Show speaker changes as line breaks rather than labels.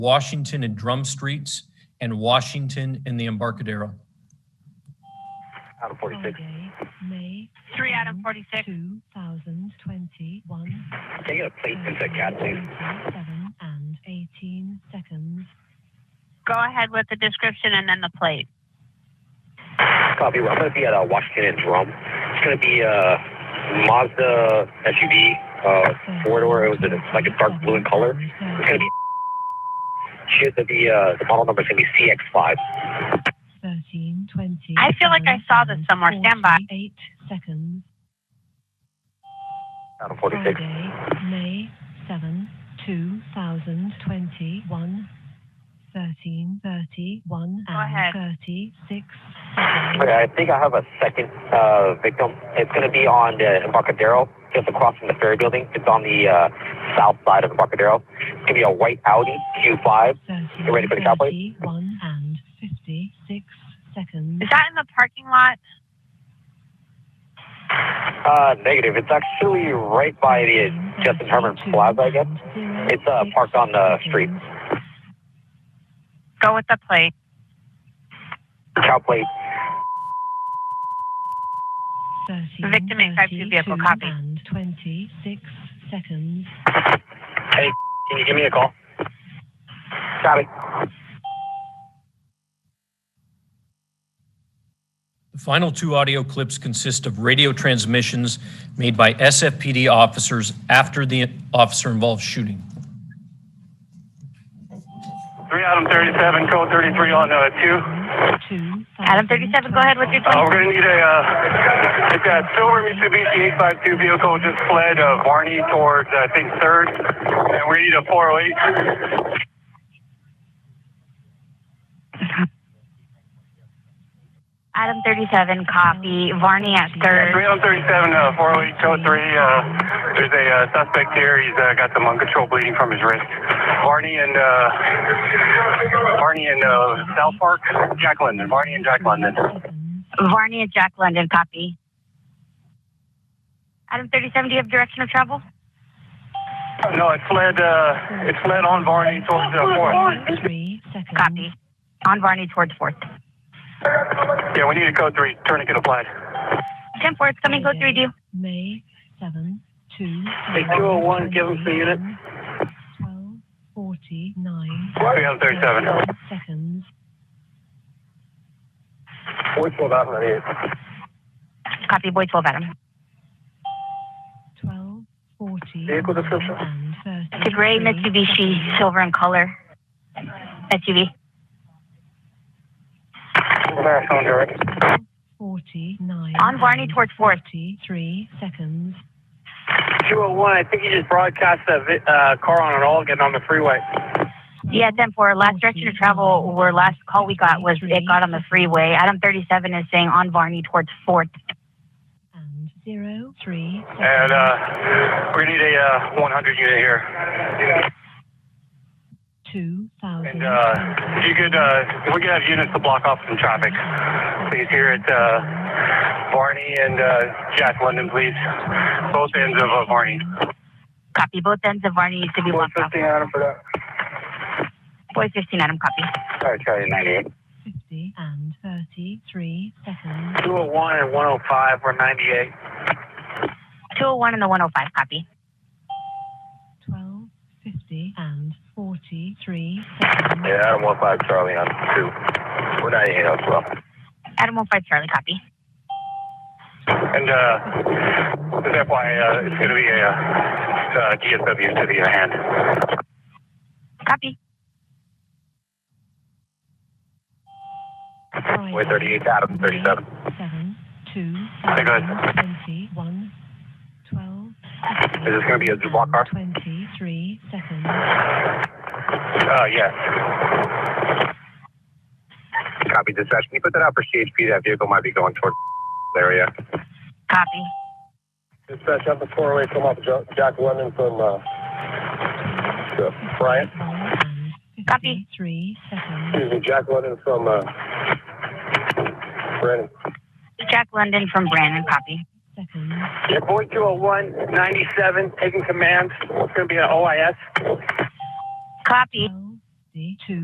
Washington and Drum Streets, and Washington and the Embarcadero.
out of 46.
Friday, May
Three out of 46.
2021.
Can you get a plate into a cat, please?
27 and 18 seconds.
Go ahead with the description and then the plate.
Copy. I'm going to be at uh, Washington and Drum. It's going to be a Mazda SUV, uh, four door. It was in, like a dark blue in color. It's going to be. Shit, the, the, uh, the model number is going to be CX5.
13, 20.
I feel like I saw this somewhere. Stand by.
Eight seconds.
Out of 46.
Friday, May 7, 2021. 13, 31
Go ahead.
and 36 seconds.
Okay, I think I have a second uh, victim. It's going to be on the Embarcadero, just across from the ferry building. It's on the uh, south side of Embarcadero. It's going to be a white Audi Q5.
You
ready for the cowboy?
One and fifty-six seconds.
Is that in the parking lot?
Uh, negative. It's actually right by the Justin Herman Plaza, I guess. It's, uh, parked on the street.
Go with the plate.
Cow plate.
Victim eight five two vehicle, copy.
And twenty-six seconds.
Can you give me a call? Copy.
The final two audio clips consist of radio transmissions made by SFPD officers after the officer-involved shooting.
Three Adam 37, code 33 on uh, 2.
Two.
Adam 37, go ahead with your
Uh,
plate.
we're going to need a, uh, it's that silver Mitsubishi 852 vehicle just fled uh, Barney towards, I think, 3rd. And we need a 408.
Adam 37, copy. Varney at
Yeah,
third.
337, uh, 408, code 3. Uh, there's a uh, suspect here. He's uh, got some uncontrolled bleeding from his wrist. Barney and, uh, Barney and uh, South Park, Jack London. Barney and Jack London.
Seconds.
Varney at Jack London, copy. Adam 37, do you have direction of travel?
No, it fled, uh, it fled on Barney towards uh, 4th.
Three seconds.
Copy. On Varney towards fourth.
Yeah, we need a code 3. Tourniquet applied.
10 fourth, coming, go three, do.
May seven, two.
Hey, 201, give us the unit.
Twelve forty-nine
337.
seconds.
412 out of the
Copy, boy 12, Adam.
Twelve forty.
Vehicle description.
And thirty.
It's a gray Mitsubishi, silver in color. SUV.
Marathon direct.
49.
On Varney
and
towards fourth.
43 seconds.
201, I think you just broadcast a vi- uh, car on an all getting on the freeway.
Yeah, ten four. Last direction of travel, or last call we got was it got on the freeway. Adam thirty seven is saying on Varney towards Fourth.
And 0, 3 seconds.
And uh, we need a uh, 100 unit here.
2000.
And uh, if you could, uh, if we could have units to block off some traffic, please. Here at uh, Barney and uh, Jack London, please. Both ends of uh, Barney.
Copy. Both ends of Varney needs to be blocked off.
Adam for that.
Boy fifteen, Adam. Copy.
Sorry, Charlie 98.
50 and 33 seconds.
201 and 105, we're 98.
Two hundred one and the one hundred five. Copy.
12, 50 and 43 seconds.
Yeah, Adam 15, Charlie on 2. We're 98 as well.
Adam one five Charlie. Copy.
And uh, just FYI, uh, it's going to be a uh, uh, DSW to the hand.
Copy.
Friday,
We're 38, Adam 37.
7, 2,
Hey, guys.
21, 12.
Is this gonna be a Zubak car?
23 seconds.
Uh, yes.
Copy dispatch. Can you put that out for CHP? That vehicle might be going toward area.
Copy.
Dispatch up the 408 from off Jack, Jack London from uh, uh, Bryant.
51 and
Copy.
53 seconds.
Excuse me, Jack London from uh, Brandon.
Jack London from Brandon. Copy.
seconds.
Your boy 201, 97, taking command. It's going to be an OIS.
Copy.
12, 0, Jersey to